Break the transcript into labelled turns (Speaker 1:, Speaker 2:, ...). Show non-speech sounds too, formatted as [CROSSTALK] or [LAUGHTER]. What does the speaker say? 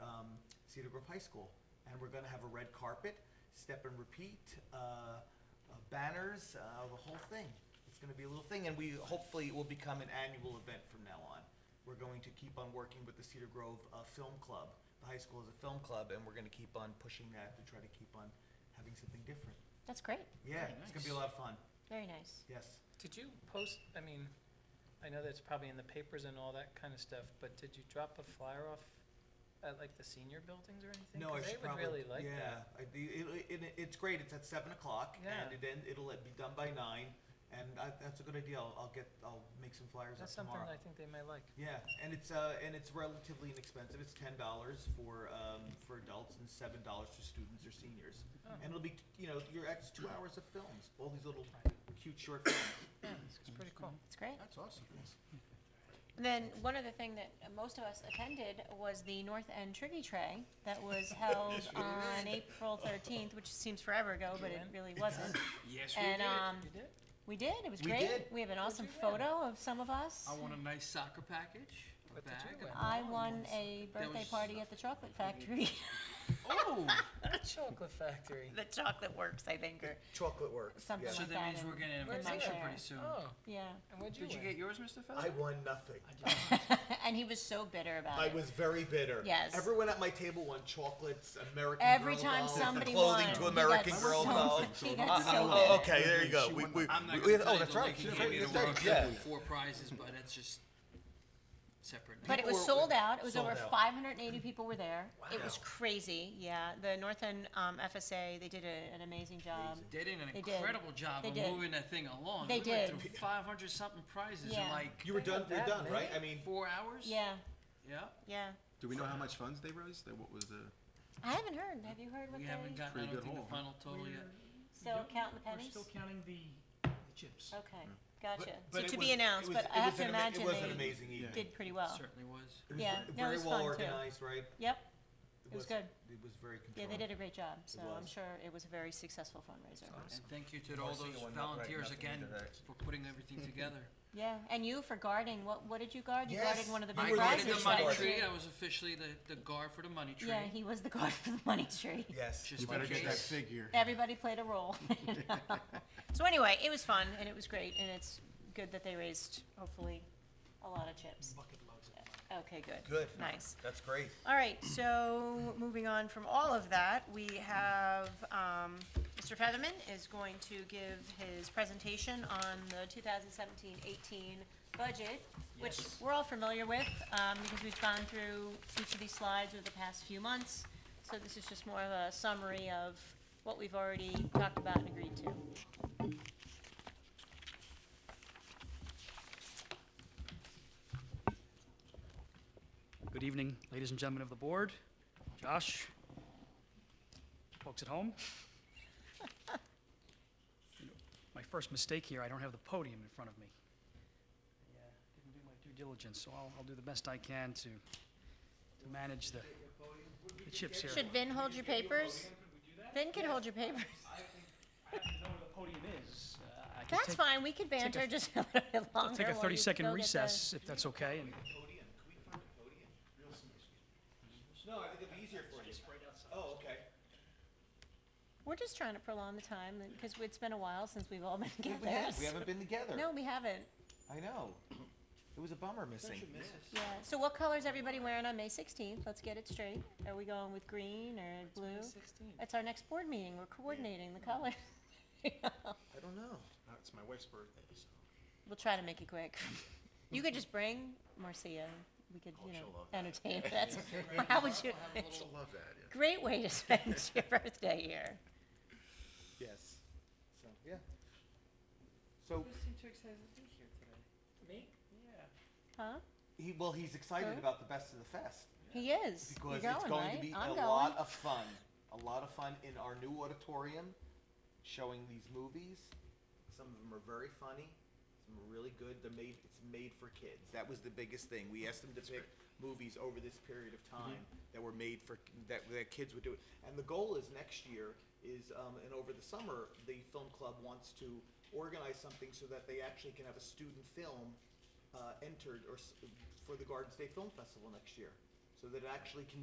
Speaker 1: um, Cedar Grove High School. And we're gonna have a red carpet, step and repeat, uh, uh, banners, uh, the whole thing. It's gonna be a little thing, and we, hopefully, it will become an annual event from now on. We're going to keep on working with the Cedar Grove uh, Film Club. The high school is a film club, and we're gonna keep on pushing that to try to keep on having something different.
Speaker 2: That's great.
Speaker 1: Yeah,
Speaker 3: Very
Speaker 1: it's gonna be a lot
Speaker 3: nice.
Speaker 1: of fun,
Speaker 2: Very nice.
Speaker 1: yes.
Speaker 3: Did you post, I mean, I know that's probably in the papers and all that kind of stuff, but did you drop a flyer off at like the senior buildings or anything?
Speaker 1: No, I
Speaker 3: 'Cause
Speaker 1: should probably.
Speaker 3: They would really like
Speaker 1: yeah,
Speaker 3: that.
Speaker 1: I- it, it, it- it's great. It's at seven o'clock,
Speaker 3: Yeah.
Speaker 1: and it end, it'll let- be done by nine. And I, that's a good idea. I'll, I'll get. I'll make some flyers
Speaker 3: That's
Speaker 1: up
Speaker 3: something
Speaker 1: tomorrow.
Speaker 3: that I think they might like.
Speaker 1: yeah, and it's uh, and it's relatively inexpensive. It's ten dollars for um, for adults and seven dollars for students or seniors.
Speaker 3: Oh.
Speaker 1: And it'll be t- you know your ex two hours of films, all these little cute short films.
Speaker 3: Yeah, it's pretty cool.
Speaker 2: It's great.
Speaker 1: that's awesome.
Speaker 2: Then one other thing that most of us attended was the North End Triggy Tray that
Speaker 4: [LAUGHS]
Speaker 2: was held on April 13th, which seems forever ago, but it really wasn't.
Speaker 4: Yes, we
Speaker 2: And
Speaker 4: did.
Speaker 2: um,
Speaker 3: You did?
Speaker 2: we did. It was
Speaker 1: We
Speaker 2: great.
Speaker 1: did.
Speaker 2: We have an awesome
Speaker 3: you win?
Speaker 2: photo of some of us.
Speaker 4: I want a nice soccer package. a
Speaker 3: What did
Speaker 4: bag, a
Speaker 3: you win?
Speaker 2: I
Speaker 4: ball,
Speaker 2: won
Speaker 4: and
Speaker 2: a birthday
Speaker 4: was-
Speaker 2: party at the Chocolate Factory.
Speaker 4: Oh,
Speaker 3: Chocolate Factory.
Speaker 2: [LAUGHS] the Chocolate Works, I think, or
Speaker 1: Chocolate works.
Speaker 2: something
Speaker 4: so
Speaker 2: like
Speaker 4: that
Speaker 2: that.
Speaker 4: means we're
Speaker 2: and-
Speaker 4: getting an
Speaker 2: Where's
Speaker 4: invitation
Speaker 2: that?
Speaker 4: pretty soon.
Speaker 3: Oh,
Speaker 2: yeah.
Speaker 3: and what'd you
Speaker 4: Did you get
Speaker 3: win?
Speaker 4: yours, Mr. Feller?
Speaker 1: won nothing.
Speaker 4: I did.
Speaker 2: [LAUGHS] and he was so bitter about it.
Speaker 1: very bitter.
Speaker 2: Yes.
Speaker 1: Everyone at my table won chocolates, American
Speaker 2: Every
Speaker 1: Girl
Speaker 2: time
Speaker 1: dolls.
Speaker 2: somebody
Speaker 5: clothing
Speaker 2: won,
Speaker 5: to
Speaker 2: he
Speaker 5: American
Speaker 2: got
Speaker 5: Girl
Speaker 2: so, [LAUGHS]
Speaker 5: dolls.
Speaker 2: He got
Speaker 1: Uh-huh.
Speaker 2: so
Speaker 5: Oh,
Speaker 2: bitter.
Speaker 5: okay, there you go.
Speaker 4: She
Speaker 5: We,
Speaker 4: won
Speaker 5: we,
Speaker 4: the- I'm not
Speaker 5: we-
Speaker 4: gonna tell
Speaker 5: oh,
Speaker 4: you
Speaker 5: that's
Speaker 4: the
Speaker 5: right.
Speaker 4: lady
Speaker 5: She
Speaker 4: gave me
Speaker 5: did.
Speaker 4: the world
Speaker 5: That's right.
Speaker 4: cup with four prizes, but that's just separate.
Speaker 2: But it was
Speaker 1: People were-
Speaker 2: sold out. It was
Speaker 1: sold
Speaker 2: over
Speaker 1: out.
Speaker 2: 580 people were there. It was
Speaker 1: Wow.
Speaker 2: crazy. Yeah, the North End um, FSA they did a, an amazing job.
Speaker 4: they did an
Speaker 2: They did.
Speaker 4: incredible job
Speaker 2: They
Speaker 4: of
Speaker 2: did.
Speaker 4: moving that thing along.
Speaker 2: They
Speaker 4: we went
Speaker 2: did.
Speaker 4: through 500 something prizes
Speaker 2: Yeah.
Speaker 4: in like
Speaker 1: You were
Speaker 3: They
Speaker 1: done.
Speaker 3: had
Speaker 1: You're
Speaker 3: that
Speaker 1: done,
Speaker 3: many?
Speaker 1: right? I mean,
Speaker 4: four hours.
Speaker 2: Yeah,
Speaker 4: Yeah.
Speaker 2: yeah.
Speaker 6: Do we know how much funds they raised? Like, what was the?
Speaker 2: I haven't heard. Have you heard what
Speaker 4: We
Speaker 2: they?
Speaker 4: haven't gotten. I
Speaker 6: Pretty
Speaker 4: don't
Speaker 6: good
Speaker 4: think the
Speaker 6: haul, huh?
Speaker 4: final total yet.
Speaker 2: still counting the
Speaker 7: We're
Speaker 2: pennies. Oh,
Speaker 7: still counting the, the chips.
Speaker 2: okay, gotcha.
Speaker 1: Mm. But
Speaker 2: so
Speaker 1: it
Speaker 2: to
Speaker 1: was-
Speaker 2: be announced,
Speaker 1: it was-
Speaker 2: but
Speaker 1: it
Speaker 2: I have
Speaker 1: was
Speaker 2: to
Speaker 1: an ama-
Speaker 2: imagine
Speaker 1: it was
Speaker 2: they
Speaker 1: an amazing evening.
Speaker 2: did pretty well.
Speaker 4: Certainly was.
Speaker 1: It was
Speaker 2: Yeah,
Speaker 1: ve-
Speaker 2: no, it
Speaker 1: very
Speaker 2: was
Speaker 1: well
Speaker 2: fun, too.
Speaker 1: organized, right?
Speaker 2: Yep.
Speaker 1: It
Speaker 2: was good.
Speaker 1: It was very
Speaker 2: Yeah,
Speaker 1: controlled.
Speaker 2: they did a great job. So I'm
Speaker 1: was.
Speaker 2: sure it was a very successful fundraiser.
Speaker 4: And thank you to all
Speaker 5: single
Speaker 4: those
Speaker 5: one, not right,
Speaker 4: volunteers
Speaker 5: nothing
Speaker 4: again
Speaker 5: indirect.
Speaker 4: for putting everything together.
Speaker 2: Yeah, and you for guarding. What what did you guard? You
Speaker 1: Yes,
Speaker 2: guarded one of the
Speaker 1: you
Speaker 2: big
Speaker 4: I
Speaker 1: were the
Speaker 4: guarded
Speaker 2: prizes.
Speaker 4: the
Speaker 1: official
Speaker 4: money
Speaker 1: guard.
Speaker 2: last
Speaker 4: tree.
Speaker 2: year.
Speaker 4: I was officially the, the guard for the money tree.
Speaker 2: Yeah, he was the guard for the money tree.
Speaker 1: Yes.
Speaker 4: Just in case.
Speaker 6: figure.
Speaker 2: everybody played a role. so anyway, it was fun and it was great, and it's good that they raised hopefully a lot of chips.
Speaker 7: Bucket loads of
Speaker 2: Okay, good.
Speaker 1: Good.
Speaker 2: Nice.
Speaker 1: That's great.
Speaker 2: All right, so moving on from all of that, we have um, Mr. Featherman is going to give his presentation on the 2017-18 budget, which
Speaker 4: Yes.
Speaker 2: we're all familiar with um, because we've gone through each of these slides over the past few months. So this is just more of a summary of what we've already talked about and agreed to.
Speaker 8: Good evening, ladies and gentlemen of the board, Josh, folks at home. You know, My first mistake here, I don't have the podium in front of me. I uh, didn't do my due diligence, so I'll, I'll do the best I can to, to manage the, the chips here.
Speaker 2: Should Vin hold your papers? Vin can hold your papers.
Speaker 7: I have to know where the podium is.
Speaker 8: Uh, I can
Speaker 2: That's
Speaker 8: take-
Speaker 2: fine, we could banter just a little bit longer.
Speaker 8: I'll take a
Speaker 2: while you
Speaker 8: 30-second
Speaker 2: go get the-
Speaker 8: recess, if that's okay,
Speaker 1: Podium.
Speaker 8: and
Speaker 1: Can we find a podium? No, I think it'd be easier for you.
Speaker 7: Right outside.
Speaker 1: Oh, okay.
Speaker 2: We're just trying to prolong the time because it's been a while since we've all been together.
Speaker 1: We have. We haven't been together.
Speaker 2: No, we haven't.
Speaker 1: I know. It was a bummer missing.
Speaker 2: Yeah. So what color's everybody wearing on May 16th? Let's get it straight. Are we going with green or blue? It's our next board meeting. We're coordinating the colors. [LAUGHS]
Speaker 1: I don't know.
Speaker 6: It's my wife's birthday, so
Speaker 2: We'll try to make it quick. You could just bring Marcia. We could, you
Speaker 6: Oh, she'll
Speaker 2: know,
Speaker 6: love that. [LAUGHS]
Speaker 2: entertain. That's, how would you,
Speaker 6: I love that. Yeah.
Speaker 2: great way to [LAUGHS] spend your birthday here.
Speaker 1: Yes. So, yeah. So,
Speaker 4: seem too excited to be here today.
Speaker 7: Me? Yeah.
Speaker 2: Huh?
Speaker 1: he, well, he's excited
Speaker 2: Huh?
Speaker 1: about the best of the fest
Speaker 2: He is. You're
Speaker 1: because it's
Speaker 2: going,
Speaker 1: going to be
Speaker 2: right?
Speaker 1: a
Speaker 2: I'm
Speaker 1: lot
Speaker 2: going.
Speaker 1: of fun. A lot of fun in our new auditorium, showing these movies. Some of them are very funny. Some are really good. They're made. It's made for kids. That was the biggest thing. We asked them to pick movies over this period of time that were made for that that kids would do it. And the goal is next year is um, and over the summer the film club wants to organize something so that they actually can have a student film uh, entered or s- for the Garden State Film Festival next year, so that it actually can